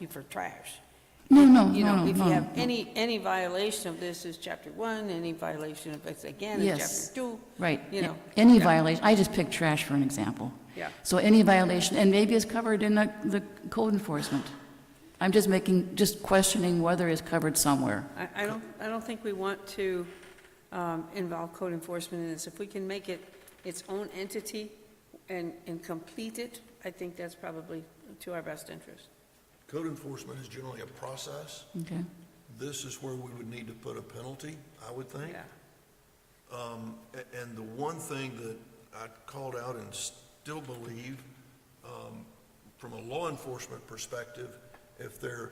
you for trash. No, no, no, You no, know, if you no, have no. any, any violation of this is chapter one, any violation of this again is Yes. chapter two. Right. You know. Any Yeah. violation, I just picked trash for an example. Yeah. So any violation, and maybe it's covered in the, the code enforcement. I'm just making, just questioning whether it's covered somewhere. I, I don't, I don't think we want to um, involve code enforcement in this. If we can make it its own entity and, and complete it, I think that's probably to our best interest. Code enforcement is generally a process. Okay. This is where we would need to put a penalty, I would think. Yeah. Um, a- and the one thing that I called out and still believe, um, from a law enforcement perspective, if they're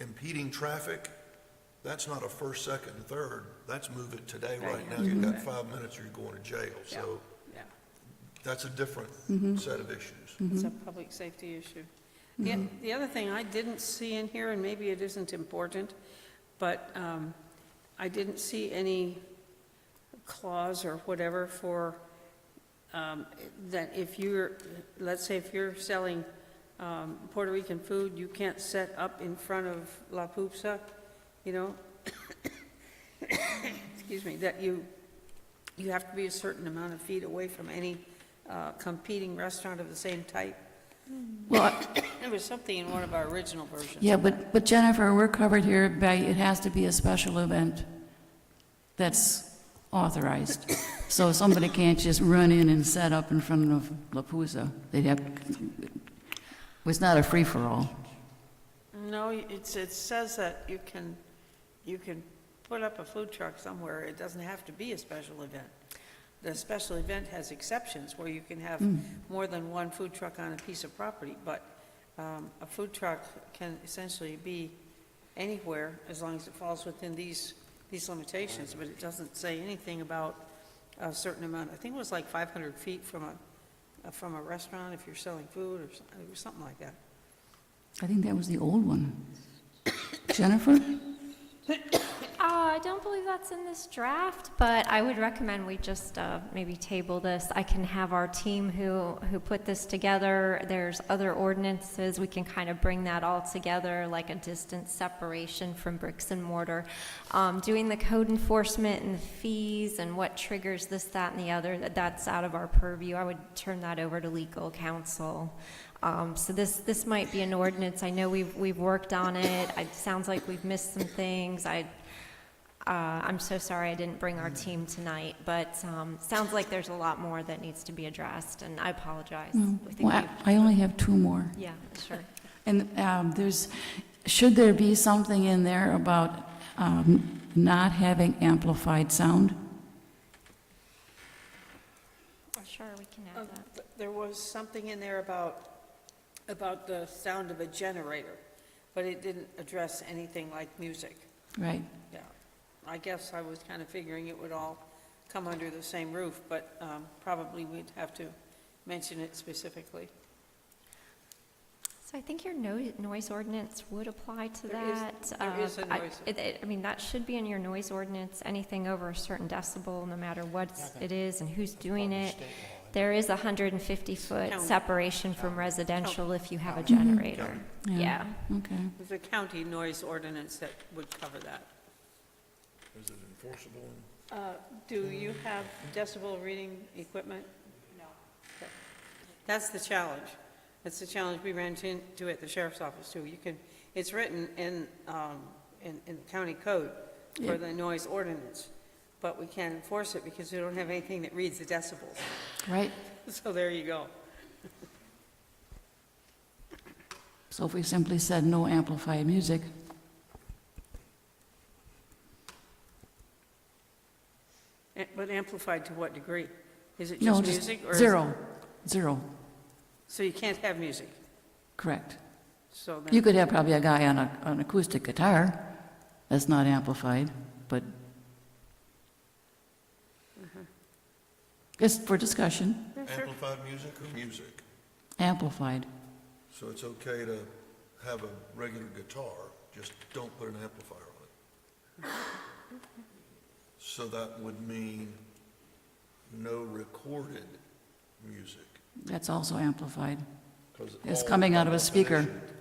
impeding traffic, that's not a first, second, and third. That's move it today right now. You've got five minutes or you're going to jail. Yeah, So yeah. that's a different set of issues. It's a public safety issue. The, the other thing I didn't see in here, and maybe it isn't important, but um, I didn't see any clause or whatever for, um, that if you're, let's say if you're selling um, Puerto Rican food, you can't set up in front of La Pupsa, you know? Excuse me, that you, you have to be a certain amount of feet away from any uh, competing restaurant of the same type. Well, I- There was something in one of our original versions. Yeah, but, but Jennifer, we're covered here by, it has to be a special event that's authorized. So somebody can't just run in and set up in front of La Pusa. They'd have, it's not a free-for-all. No, it's, it says that you can, you can put up a food truck somewhere, it doesn't have to be a special event. The special event has exceptions where you can have more than one food truck on a piece of property, but um, a food truck can essentially be anywhere as long as it falls within these, these limitations, but it doesn't say anything about a certain amount, I think it was like 500 feet from a, uh, from a restaurant if you're selling food or some- or something like that. I think that was the old one. Jennifer? Uh, I don't believe that's in this draft, but I would recommend we just uh, maybe table this. I can have our team who, who put this together. There's other ordinances. We can kind of bring that all together, like a distance separation from bricks and mortar. Um, doing the code enforcement and the fees and what triggers this, that, and the other, that- that's out of our purview. I would turn that over to legal counsel. Um, So this, this might be an ordinance. I know we've, we've worked on it. It sounds like we've missed some things. I, uh, I'm so sorry I didn't bring our team tonight, but um, sounds like there's a lot more that needs to be addressed, and I apologize. I think Mm, Well, I I only have two more. we've- Yeah, sure. And um, there's, should there be something in there about um, not having amplified sound? Sure, we can Uh, add that. th- There was something in there about, about the sound of a generator, but it didn't address anything like music. Right. Yeah. I guess I was kind of figuring it would all come under the same roof, but um, probably we'd have to mention it specifically. So I think your no- noise ordinance would apply to There is- that. there Uh, is a I- noise- it- it- I mean, that should be in your noise ordinance, anything over a certain decibel, no matter what it is and who's doing it. There is a 150-foot County. separation from residential if you have a generator. Yeah. Okay. There's a county noise ordinance that would cover that. Is it enforceable? Uh, Do you have decibel reading equipment? No. That's the challenge. That's the challenge we ran into at the sheriff's office, too. You can, it's written in, um, in, in the county code for the noise ordinance, but we can't enforce it because we don't have anything that reads the decibels. Right. So there you go. So if we simply said no amplified music, A- But amplified to what degree? Is it no, just just music? or is- zero, zero, So you can't have music, correct. so You then, could have probably a guy on a, an acoustic guitar that's not amplified, but it's for discussion, Amplified music or music? amplified. So it's okay to have a regular guitar, just don't put an amplifier on it. So that would mean no recorded music. That's also amplified. 'cause It's all coming by out of a speaker. definition,